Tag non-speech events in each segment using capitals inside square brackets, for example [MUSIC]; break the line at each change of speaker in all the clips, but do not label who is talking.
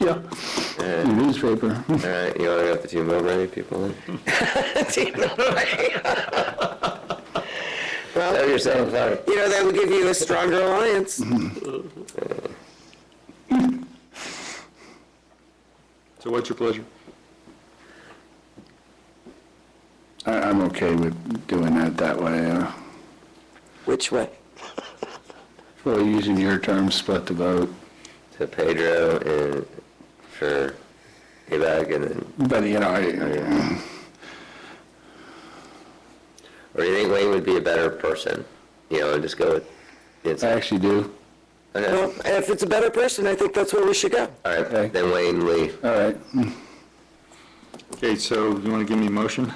Yeah, Uh, newspaper.
All right, you want to got the Team Mowbray people in?
[LAUGHS] Team Mowbray.
Tell
Well,
yourself, sorry.
you know, that would give you a stronger alliance.
So what's your pleasure?
[LAUGHS] I, I'm okay with doing that that way. uh,
Which way?
Well, using your term, split the vote.
To Pedro and for Evac and then,
But, you know, I- uh,
or do you think Wayne would be a better person? You know, and just go with, it's,
I actually do.
okay,
Uh,
Well, if it's a better person, I think that's where we should go.
all
Okay.
right, then Wayne Lee.
All right.
Okay, so you want to give me a motion?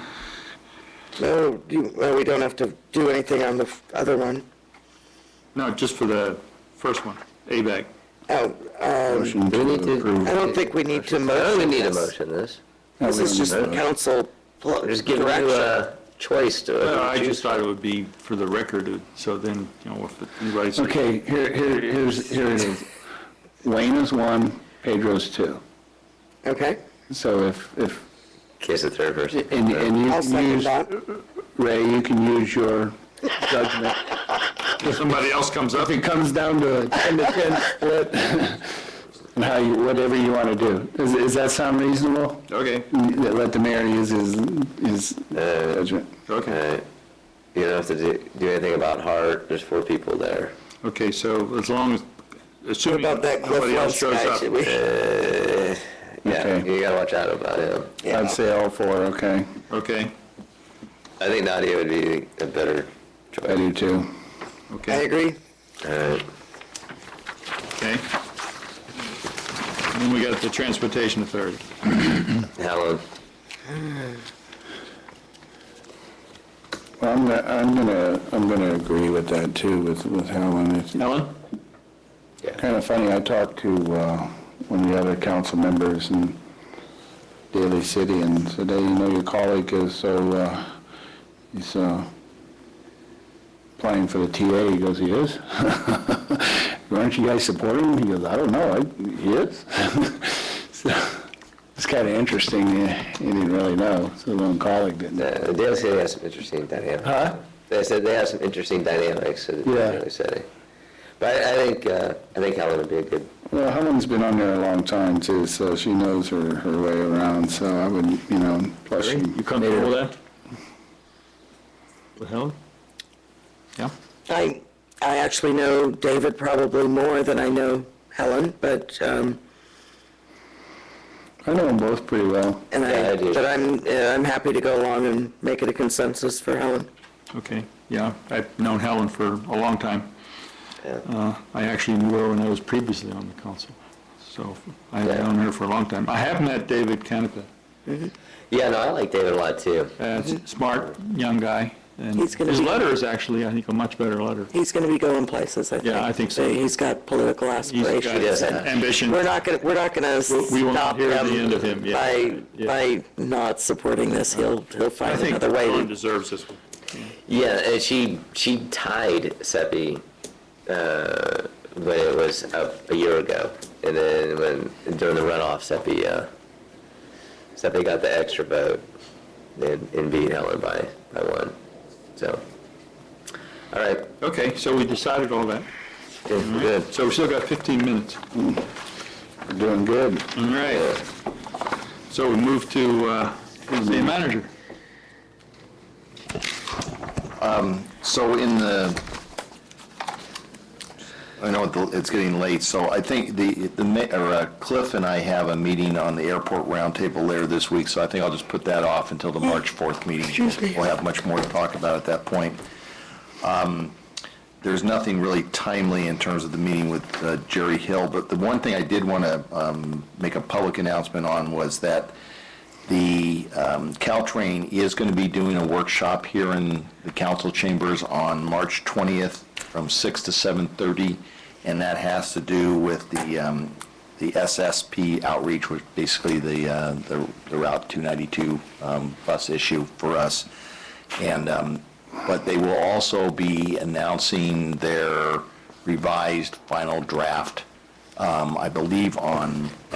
No, you, well, we don't have to do anything on the f- other one.
No, just for the first one, ABAC.
Oh, um,
Motion
Do we need
to
to-
approve.
I don't think we need to
I don't
motion
even need a
this.
motion this.
No,
This
we
is
don't
just
need that.
council pl-
Just give you
direction.
a choice
Well,
to
I
choose.
just thought it would be for the record, so then, you know, if anybody's,
Okay, here, here, here's, here it is. Wayne is one, Pedro's two.
Okay?
So if, if,
Case of third person.
and, and you
I'll
can
second
use,
that.
Ray, you can use your judgment.
if somebody else comes up,
If it comes down to a 10 to 10 split, [LAUGHS] and how you, whatever you want to do. Does, does that sound reasonable?
okay,
That Let the mayor use his, his uh, judgment.
All
okay.
right. You don't have to do, do anything about Hart, there's four people there.
Okay, so as long as, assuming
About that Cliff
nobody else
Lentz
shows
guy,
up.
should we?
Yeah,
Okay.
you gotta watch out about him.
I'd say all four, okay.
Okay,
I think Nadia would be a better
I
choice.
do too.
I
okay,
agree.
All right.
okay. And Then we got the Transportation Authority.
Helen,
Well, I'm, gonna- I'm gonna, I'm gonna agree with that too, with, with Helen. It's
Helen?
kind of funny, I talked to, uh, one of the other council members in Daly City and said, hey, you know, your colleague is so, uh, he's, uh, applying for the TA. He goes, he is? [LAUGHS] Aren't you guys supporting him? He goes, I don't know, I, he is? [LAUGHS] So, It's kind of interesting, he didn't really know, so one colleague didn't.
uh, Dale City has some interesting dynamics.
Huh?
They said they have some interesting dynamics in
Yeah.
Daly City. But I, I think, uh, I think Helen would be a good,
Well, Helen's been on there a long time too, so she knows her, her way around, so I would, you know, plus she.
You comfortable with that? With Helen? Yeah?
I, I actually know David probably more than I know Helen, but, um,
I know them both pretty well.
and
Yeah,
I,
I do.
but I'm, uh, I'm happy to go along and make it a consensus for Helen.
Okay, yeah, I've known Helen for a long time.
yeah.
Uh, I actually knew her when I was previously on the council, so I've known her for a long time. I have met David Canepa.
Yeah, no, I like David a lot too.
Uh, s- Smart, young guy, and
Mm-hmm. He's
his
gonna be-
letter is actually, I think, a much better letter.
He's going to be going places, I think.
Yeah, I think so.
He's got political
He's got
aspirations. and
ambition.
We're not going, to we're not going to
we won't
stop
hear the
him
end of him, yeah.
by,
Yeah.
by not supporting this. He'll, he'll
I
find
think
another way.
Helen
to-
deserves this one.
Yeah, and she, she tied Seppi, uh, when it was up a year ago. And then when, during the runoff, Seppi, uh, Seppi got the extra vote and, and beat Helen by, by one. So, all right,
Okay, so we decided all that.
good,
Mm-hmm.
good.
So we still got 15 minutes.
We're doing good.
All right. So we move to uh, city manager.
So in the, I know it- it's getting late, so I think the, the ma- or uh, Cliff and I have a meeting on the airport roundtable later this week, so I think I'll just put that off until the March 4th meeting. We'll have much more to talk about at that point. Um, There's nothing really timely in terms of the meeting with uh, Jerry Hill, but the one thing I did want to make a public announcement on was that the um, Caltrain is going to be doing a workshop here in the council chambers on March 20th from 6 to 7:30, and that has to do with the um, the SSP outreach, which basically the uh, the the Route 292 um, bus issue for us. And, um, but they will also be announcing their revised final draft, um, I believe, on